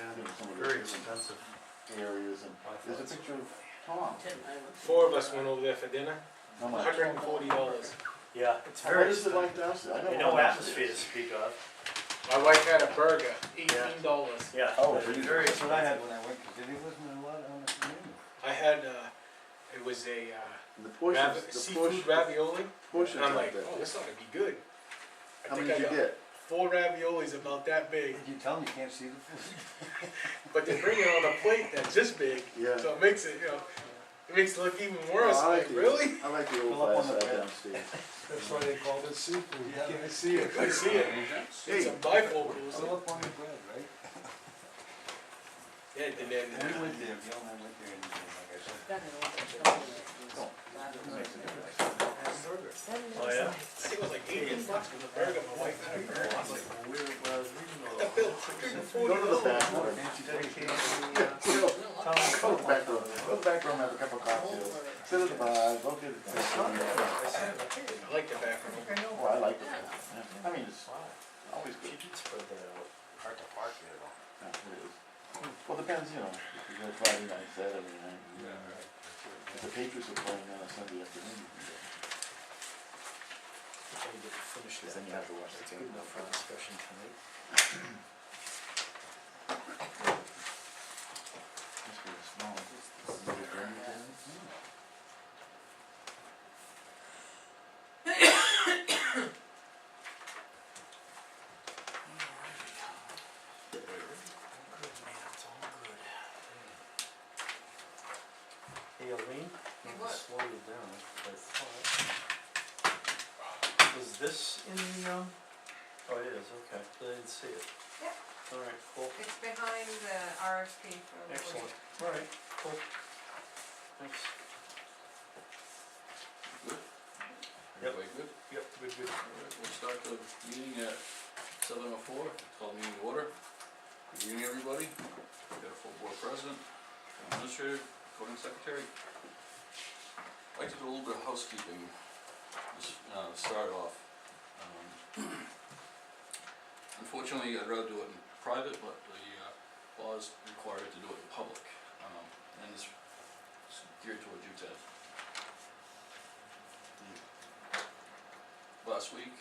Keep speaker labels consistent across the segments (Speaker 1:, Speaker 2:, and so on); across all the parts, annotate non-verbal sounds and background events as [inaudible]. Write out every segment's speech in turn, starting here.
Speaker 1: some of the
Speaker 2: very
Speaker 1: different
Speaker 2: expensive.
Speaker 1: areas, and there's a picture of Tom.
Speaker 3: Four of us went over there for dinner,
Speaker 1: How much?
Speaker 3: hundred and forty dollars.
Speaker 2: Yeah, it's
Speaker 1: How much
Speaker 2: very
Speaker 1: is it
Speaker 2: expensive.
Speaker 1: like downstairs? I
Speaker 2: And
Speaker 1: don't know.
Speaker 2: no
Speaker 1: how much it
Speaker 2: atmosphere to
Speaker 1: is.
Speaker 2: speak of,
Speaker 3: My wife had a burger, eighteen dollars.
Speaker 2: yeah.
Speaker 1: Oh,
Speaker 2: it's
Speaker 1: really?
Speaker 2: Very
Speaker 4: That's what I
Speaker 2: expensive.
Speaker 4: had when I went, cause there wasn't a lot on the menu.
Speaker 3: I had, uh, it was a, uh,
Speaker 1: And The portions,
Speaker 3: ravi-
Speaker 1: the
Speaker 3: seafood
Speaker 1: portions,
Speaker 3: ravioli,
Speaker 1: portions
Speaker 3: and I'm
Speaker 1: out
Speaker 3: like,
Speaker 1: there.
Speaker 3: oh, this ought to be good. I
Speaker 1: How
Speaker 3: think
Speaker 1: many
Speaker 3: I
Speaker 1: did you
Speaker 3: got
Speaker 1: get?
Speaker 3: Four raviolis about that big,
Speaker 4: Did you tell them you can't see the food?
Speaker 3: but they bring it on a plate that's this big,
Speaker 1: Yeah.
Speaker 3: so it makes it, you know, it makes it look even worse,
Speaker 1: Oh, I
Speaker 3: like,
Speaker 1: the-
Speaker 3: really?
Speaker 1: I like the
Speaker 4: Fill up
Speaker 1: old
Speaker 4: on the
Speaker 1: glass out
Speaker 4: bread.
Speaker 1: downstairs.
Speaker 5: That's why they called it seafood,
Speaker 4: Yeah.
Speaker 5: can I see it?
Speaker 3: I see it, it's a
Speaker 1: Hey.
Speaker 3: bifocal,
Speaker 4: Fill
Speaker 3: so,
Speaker 4: up on the bread, right?
Speaker 3: yeah,
Speaker 4: And
Speaker 3: and then,
Speaker 4: we went there, Bill and I went there and, uh, like I said, it makes a difference.
Speaker 2: Oh, yeah?
Speaker 3: I think it was like eighteen bucks for the burger, my wife had a burger, I was like,
Speaker 5: Where, where I was reading all
Speaker 3: what the bill, hundred
Speaker 1: Go
Speaker 3: and forty
Speaker 1: to the
Speaker 3: dollars?
Speaker 1: bathroom.
Speaker 4: Nancy
Speaker 5: Dedicated,
Speaker 4: Fraser,
Speaker 1: Go go to
Speaker 5: uh, Tom Cook.
Speaker 1: the back room, go to the back room, have a cup of cocktails, sit at the bar, go get a drink.
Speaker 5: I said, I think
Speaker 3: I like the bathroom.
Speaker 5: I know.
Speaker 1: Oh, I like it. I mean, it's always good.
Speaker 5: She did spread that out,
Speaker 4: uh,
Speaker 5: hard to park there though.
Speaker 1: Yeah, it is. Well, depends, you know, if you go Friday night, Saturday night. you know. If the Patriots are playing on a Sunday afternoon, you can go.
Speaker 5: Finish
Speaker 1: Then you have to watch the
Speaker 5: That's
Speaker 1: tape.
Speaker 5: Good enough for discussion tonight.
Speaker 1: Must be a small. Maybe a grand thing.
Speaker 5: Good man, it's all good. Hey, Elaine?
Speaker 6: Hey,
Speaker 5: I'm
Speaker 6: what?
Speaker 5: gonna slow you down, but. Was this in the, um, oh, it is, okay, I didn't see it.
Speaker 6: Yeah.
Speaker 5: Alright, cool,
Speaker 6: It's behind the RFP for. the-
Speaker 5: excellent, alright, cool. Thanks. Yep.
Speaker 7: Everybody good?
Speaker 5: Yep, good, good.
Speaker 7: Alright, we'll start the meeting at seven oh four, it's called meeting to order. Good evening, everybody. We've got a full board president, administrator, voting secretary. I'd like to do a little bit of housekeeping, just, uh, start off. Um, [clears throat] Unfortunately, I'd rather do it in private, but the, uh, laws require it to do it in public, um, and this is geared towards you, Ted. The last week,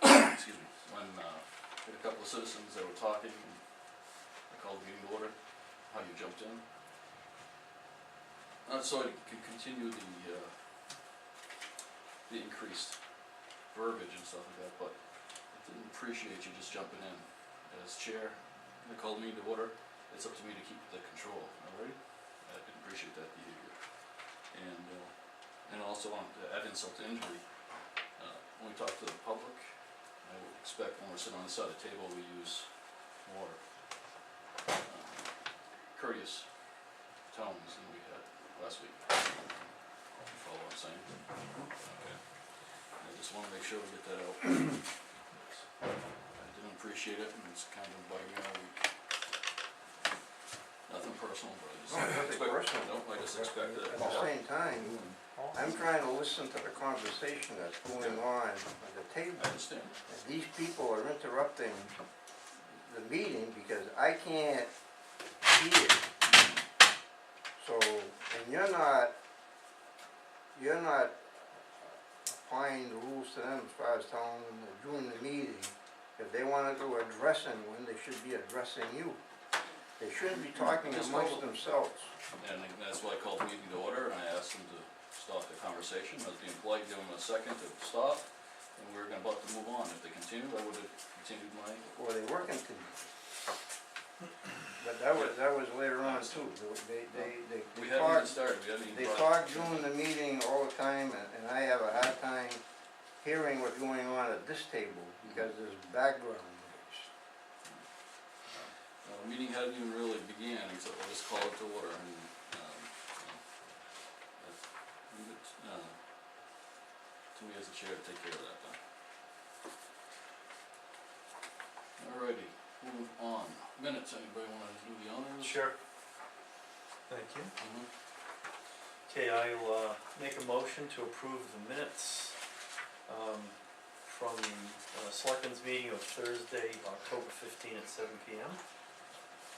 Speaker 7: [coughs] excuse me, when, uh, we had a couple of citizens that were talking, and I called the meeting to order, how you jumped in. Uh, so I could continue the, uh, the increased verbiage and stuff like that, but I didn't appreciate you just jumping in as chair, they called me to order, it's up to me to keep the control, alright? I didn't appreciate that behavior, and, uh, and also on, to add insult to injury, uh, when we talk to the public, I would expect when we're sitting on the side of the table, we use more um, courteous tones than we had last week. You follow what I'm saying? Okay. I just wanna make sure we get that out. I didn't appreciate it, and it's kind of bugging me all week. Nothing personal, but I just
Speaker 8: No, nothing
Speaker 7: expect,
Speaker 8: personal.
Speaker 7: no, I just expected it.
Speaker 8: At the same time, I'm trying to listen to the conversation that's going on at the table.
Speaker 7: I understand.
Speaker 8: And these people are interrupting the meeting because I can't hear. So, and you're not, you're not applying the rules to them as far as telling them to join the meeting. If they wanna go addressing when they should be addressing you. They shouldn't be talking
Speaker 7: Just
Speaker 8: amongst
Speaker 7: hold it.
Speaker 8: themselves.
Speaker 7: And I- that's why I called the meeting to order, and I asked them to stop the conversation, I was being polite, give them a second to stop, and we were gonna about to move on, if they continued, I would've continued my,
Speaker 8: Well, they were continuing. But that was, that was later on too, they, they, they,
Speaker 7: we hadn't
Speaker 8: they
Speaker 7: even
Speaker 8: talked,
Speaker 7: started, we hadn't even.
Speaker 8: they
Speaker 7: brought-
Speaker 8: talk during the meeting all the time, and, and I have a hard time hearing what's going on at this table, because there's background noise.
Speaker 7: Uh, the meeting hadn't even really began, except we'll just call it to order, and, um, you know, that's- leave it, uh, to me as a chair, to take care of that then. Alrighty, moving on, minutes, anybody wanna do the honors?
Speaker 2: Sure. Thank you.
Speaker 7: Mhm.
Speaker 2: Okay, I will, uh, make a motion to approve the minutes, um, from the, uh, selectmen's meeting of Thursday, October fifteen at seven P M.